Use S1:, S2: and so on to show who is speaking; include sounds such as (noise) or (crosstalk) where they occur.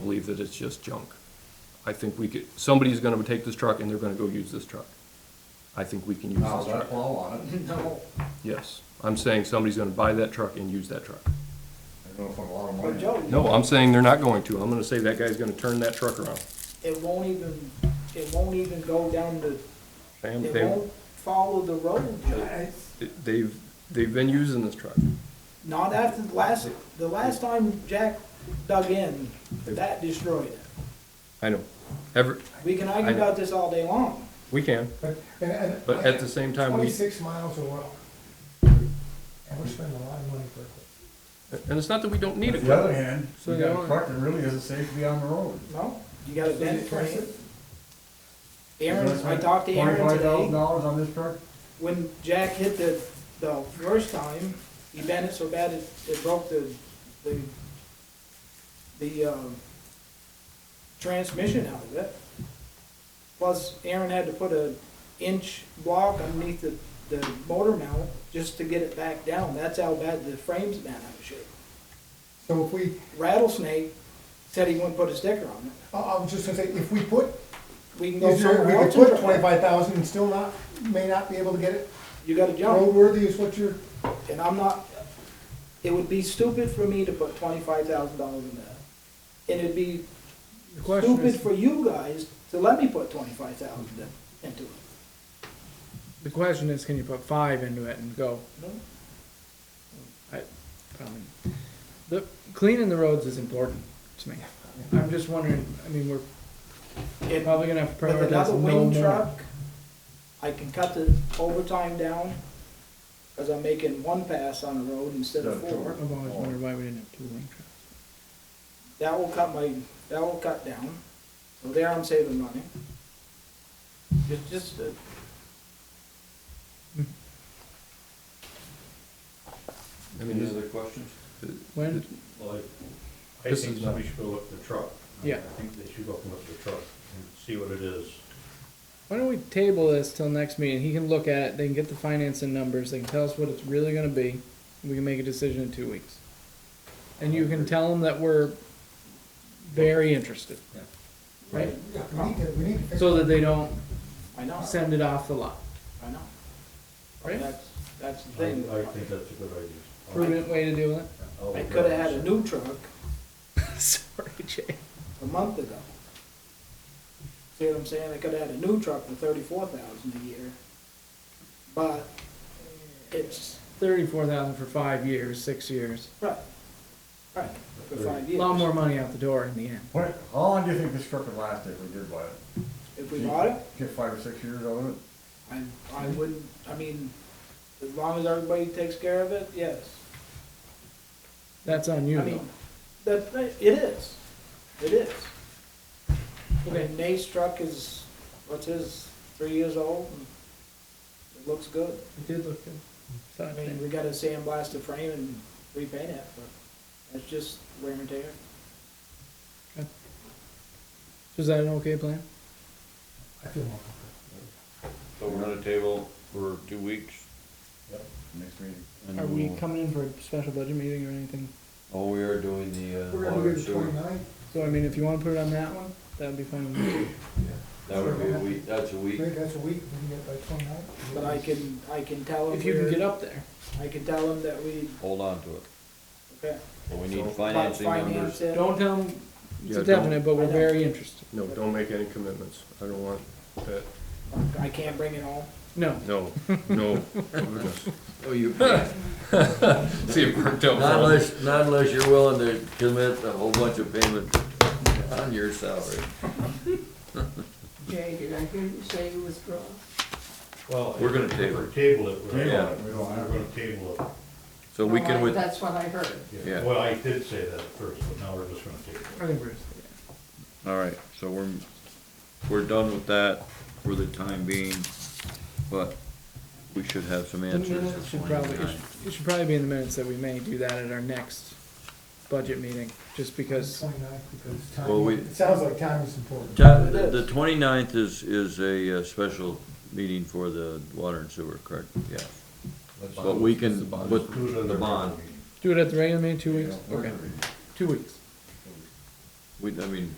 S1: believe that it's just junk. I think we could, somebody's gonna take this truck and they're gonna go use this truck. I think we can use
S2: I'll
S1: this
S2: let
S1: truck.
S2: blow on it. No.
S1: Yes, I'm saying somebody's gonna buy that truck and use that truck.
S2: I don't know if I'm allowed
S3: But
S2: to.
S3: Joe,
S1: No, I'm saying they're not going to. I'm gonna say that guy's gonna turn that truck around.
S3: it won't even, it won't even go down the,
S1: Sam,
S3: it
S1: they,
S3: won't follow the road, Joe.
S1: they've, they've been using this truck.
S3: Not after the last, the last time Jack dug in, that destroyed it.
S1: I know. Ever,
S3: We can
S1: I
S3: argue
S1: know.
S3: about this all day long.
S1: we can,
S4: But, and, and.
S5: uh,
S1: but at the same time, we,
S4: Twenty-six miles an hour. And we're spending a lot of money for it.
S1: and it's not that we don't need
S2: On
S1: it.
S2: the other hand,
S1: So
S2: you
S1: they
S2: got
S1: are.
S2: a truck that really isn't safe to be on the road.
S3: No, you got a bent frame.
S2: You're
S3: Aaron,
S2: gonna
S3: I talked to Aaron
S2: Twenty-five thousand
S3: today,
S2: dollars on this truck?
S3: when Jack hit the, the first time, he bent it so bad it, it broke the, the, the, um, transmission out of it. Plus, Aaron had to put a inch block underneath the, the motor mount just to get it back down, that's how bad the frame's been out of shape.
S4: So if we,
S3: Rattlesnake said he wouldn't put a sticker on it,
S4: I, I was just gonna say, if we put,
S3: we can go
S4: is there, we
S3: somewhere
S4: could
S3: else. and
S4: put
S3: try it.
S4: twenty-five thousand and still not, may not be able to get it
S3: You got a jump,
S4: roadworthy is what you're,
S3: and I'm not, it would be stupid for me to put twenty-five thousand dollars in that. And it'd be
S6: The question
S3: stupid
S6: is,
S3: for you guys to let me put twenty-five thousand into it.
S6: the question is, can you put five into it and go?
S3: No.
S6: I, I mean, the, cleaning the roads is important to me. I'm just wondering, I mean, we're
S3: And
S6: probably gonna have to
S3: With another
S6: prioritize no
S3: wing
S6: more.
S3: truck, I can cut the overtime down, cause I'm making one pass on the road instead of
S2: Yeah, sure.
S3: four.
S6: I've always wondered why we didn't have two wing trucks.
S3: That will cut my, that will cut down, so there I'm saving money. It's just, a-
S1: I mean,
S7: other questions?
S6: When,
S7: Well, I I
S1: This
S7: think
S1: is not-
S7: somebody should go look at the truck.
S6: Yeah.
S7: I think they should go up and look at the truck and see what it is.
S6: why don't we table this till next meeting? He can look at it, they can get the financing numbers, they can tell us what it's really gonna be. and We can make a decision in two weeks. And you can tell them that we're very interested.
S2: Yeah.
S6: Right?
S4: yeah, we need to, we need to. fix
S6: So
S4: it.
S6: that they don't
S3: I know,
S6: send it off the lot.
S3: I know.
S6: Right?
S3: That's, that's the
S7: I,
S3: thing.
S7: Um, I think that's a good idea.
S6: Prudent way to deal with it. (laughs)
S7: I'll- I'll
S3: I
S7: look
S3: could've
S7: at
S3: had
S7: it.
S3: a new truck
S6: Sorry, Jay.
S3: a month ago. See what I'm saying? I could've had a new truck for thirty-four thousand a year. But it's,
S6: Thirty-four thousand for five years, six years.
S3: right, right, for five
S6: A lot
S3: years.
S6: more money out the door in the end.
S2: What, how long do you think this truck would last if we did buy it?
S3: If we bought it,
S2: Get five or six years out of it?
S3: I, I wouldn't, I mean, as long as everybody takes care of it, yes.
S6: That's on
S3: I
S6: you
S3: mean,
S6: though.
S3: that, that- it is, it is. I
S6: Okay.
S3: mean, Nate's truck is, what's his, three years old, and it looks good.
S6: It did look good. So I
S3: I mean,
S6: think-
S3: we gotta sandblast the frame and repaint it, but that's just wear and tear.
S6: Was that an okay plan?
S4: I feel more
S5: So we're on the table for two weeks?
S2: Next meeting.
S5: and
S6: Are we
S5: we'll-
S6: coming in for a special budget meeting or anything?
S5: Oh, we are doing the, uh.
S4: We're
S5: water
S4: gonna do
S5: and
S4: the
S5: sewer.
S4: twenty-nine,
S6: So I mean, if you wanna put it on that one, that would be fine. with me.
S5: That would be a week, that's a week.
S4: maybe that's a week, we can get by twenty-nine.
S3: But I can, I can tell them
S6: If you can get
S3: we're,
S6: up there.
S3: I can tell them that we,
S5: Hold on to it.
S3: okay,
S5: But we need
S1: So-
S3: about
S5: financing
S3: finance
S5: numbers.
S3: it.
S6: Don't tell them it's
S1: Yeah,
S6: a
S1: don't-
S6: definite, but
S3: I
S6: we're
S3: know.
S6: very interested.
S1: no, don't make any commitments. I don't want that.
S3: I can't bring it home.
S6: No.
S1: No, no. goodness.
S5: Oh, you can't.
S1: See if we're done.
S5: Not unless, not unless you're willing to commit a whole bunch of payment on your salary.
S8: Jay, did I hear you say you withdraw?
S7: Well,
S5: We're gonna
S7: if
S5: table
S7: we Table it. we're-
S5: Yeah.
S2: We don't have
S7: We're
S2: it.
S7: gonna table
S5: So we
S8: Well, Oh, I-
S5: can with,
S8: That's what I heard.
S7: it.
S5: Yeah.
S7: Well, I did say that at first, but now we're just gonna table it.
S6: I think we're,
S5: all right, so we're, we're done with that for the time being, but we should have some
S6: the
S5: answers.
S6: minutes
S5: at
S6: should probably, it
S5: 29.
S6: should- it should probably be in the minutes that we may do that at our next budget meeting, just because
S4: Twenty-nine, because
S5: Well, we-
S4: time, it sounds like time is important.
S5: Ta- The twenty-ninth is, is a uh, special meeting for the water and sewer, correct? Yeah. But we
S1: That's the
S5: can,
S1: bond.
S5: but
S7: Do it at
S5: the
S7: regular
S5: bond,
S7: meeting.
S6: Do it at the regular meeting, two weeks?
S2: Yeah, we're
S6: Okay,
S2: gonna be-
S6: two weeks.
S5: We, I mean,